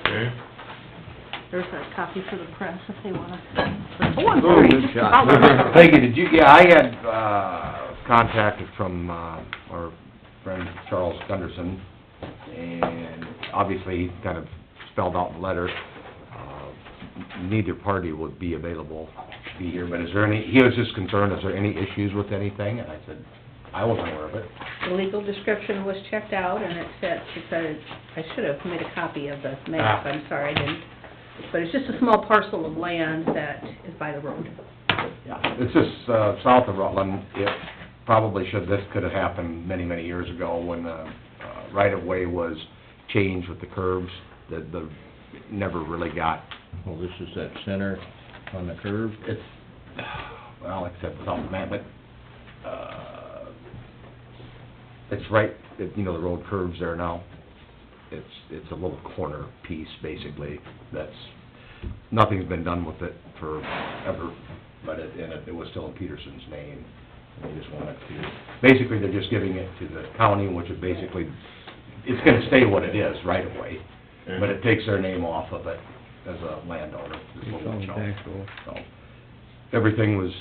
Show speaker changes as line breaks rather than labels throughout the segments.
Okay.
There's a copy for the press if they wanna.
Oh, good shot. Peggy, did you, yeah, I had, uh, contacted from, uh, our friend Charles Gunderson, and obviously, he kind of spelled out in the letter, uh, neither party would be available to be here, but is there any, he was just concerned, is there any issues with anything? And I said, I wasn't aware of it.
The legal description was checked out, and it said, she said, I should have made a copy of the map, I'm sorry, I didn't. But it's just a small parcel of land that is by the road.
Yeah, it's just, uh, south of Rutland, it probably should, this could have happened many, many years ago when the uh, right-of-way was changed with the curves, that the, never really got,
Well, this is that center on the curve.
it's, well, except south of Man, but, uh, it's right, it- you know, the road curves there now. It's, it's a little corner piece, basically, that's, nothing's been done with it forever, but it, and it- it was still in Peterson's name. They just want it to, basically, they're just giving it to the county, which is basically, it's gonna stay what it is right away, but it takes their name off of it as a landowner. this
It's
little
on
chunk.
tax roll.
So, everything was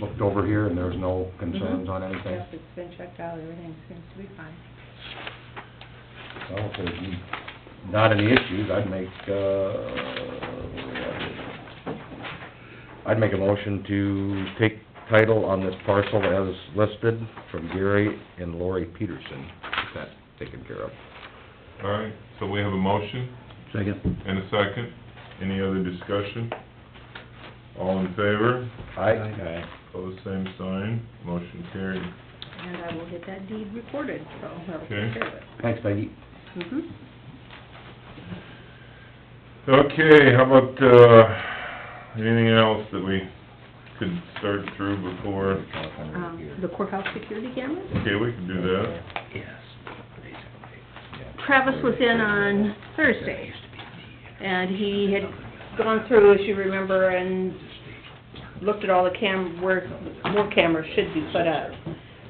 looked over here, and there was no
Mm-hmm.
concerns on anything?
Yes, Mhm. it's been checked out, everything seems to be fine.
Well, if there's not any issues, I'd make, uh, I'd make a motion to take title on this parcel as listed from Gary and Lori Peterson. Get that taken care of.
All right, so we have a motion
Second.
and a second. Any other discussion? All in favor?
Aye.
Pose same sign. Motion carried.
And I will get that deed recorded, so I'll take
Okay.
care of it.
Thanks, Peggy.
Mm-hmm.
Okay, how about, uh, anything else that we could start through before?
Um, the courthouse security cameras?
Okay, we can do that.
Yes.
Travis was in on Thursday, and he had gone through, as you remember, and looked at all the cam, where more cameras should be put up.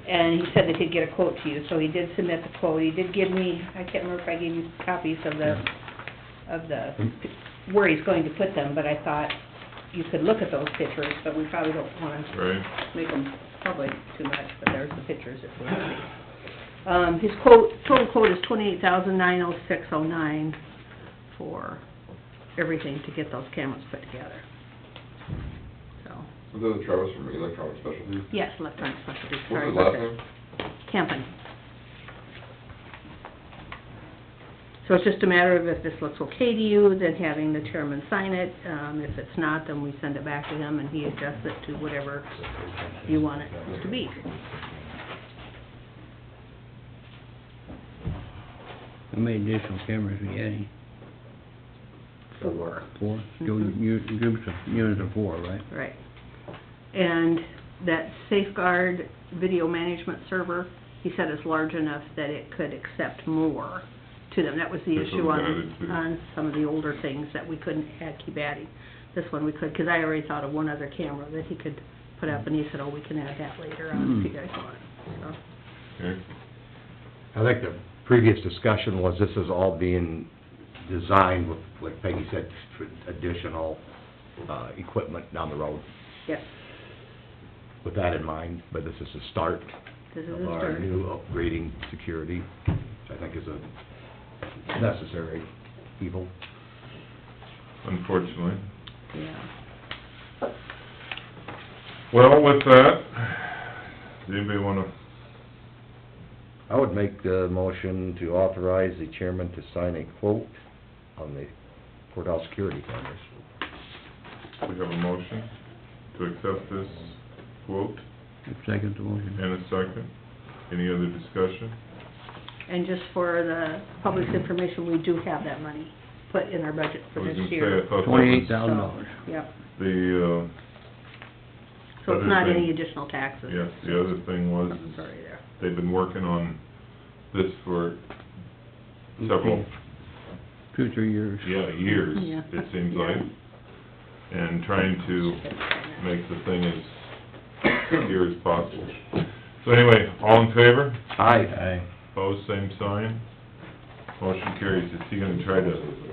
And he said that he'd get a quote to you, so he did submit the quote. He did give me, I can't remember if I gave you copies of the, of the, where he's going to put them, but I thought you could look at those pictures, but we probably don't want to
Right,
make them public too much, but there's the pictures if you want to see. Um, his quote, total quote is twenty-eight thousand nine oh six oh nine for everything to get those cameras put together. So,
Was that Travis from Electronic Specialties?
yes, electronic specialty,
What
sorry
was his
about
last
that.
name?
Camping. So it's just a matter of if this looks okay to you, then having the chairman sign it. Um, if it's not, then we send it back to him and he adjusts it to whatever you want it to be.
How many additional cameras we adding?
Four.
Four? Two u- groups of, units of four, right?
Right. And that safeguard video management server, he said is large enough that it could accept more to them. That was the
That's what
issue
we
on,
added to.
on some of the older things that we couldn't add, keep adding. This one we could, because I already thought of one other camera that he could put up, and he said, oh, we can add that later on if you guys want. So,
okay.
I think the previous discussion was this is all being designed with, like Peggy said, for additional, uh, equipment down the road.
yes,
With that in mind, but this is the start
this is a
of our
start.
new upgrading security, which I think is a necessary evil.
Unfortunately.
Yeah.
Well, with that, does anybody wanna,
I would make the motion to authorize the chairman to sign a quote on the courthouse security cameras.
we have a motion to accept this quote
Second to motion.
and a second? Any other discussion?
And just for the public's information, we do have that money put in our budget
I
for
was
this
gonna say,
year.
I thought that
Twenty-eight
was
thousand dollars.
So, Yep.
The, uh,
So it's
Other
not
thing-
any additional taxes?
Yes, the other thing was,
I'm
is
sorry there.
they've been working on this for several,
Two, three years.
yeah, years,
Yeah.
it seems like. And trying to make the thing as clear as possible. So anyway, all in favor?
Aye.
Pose same sign. Motion carries. Is he gonna try to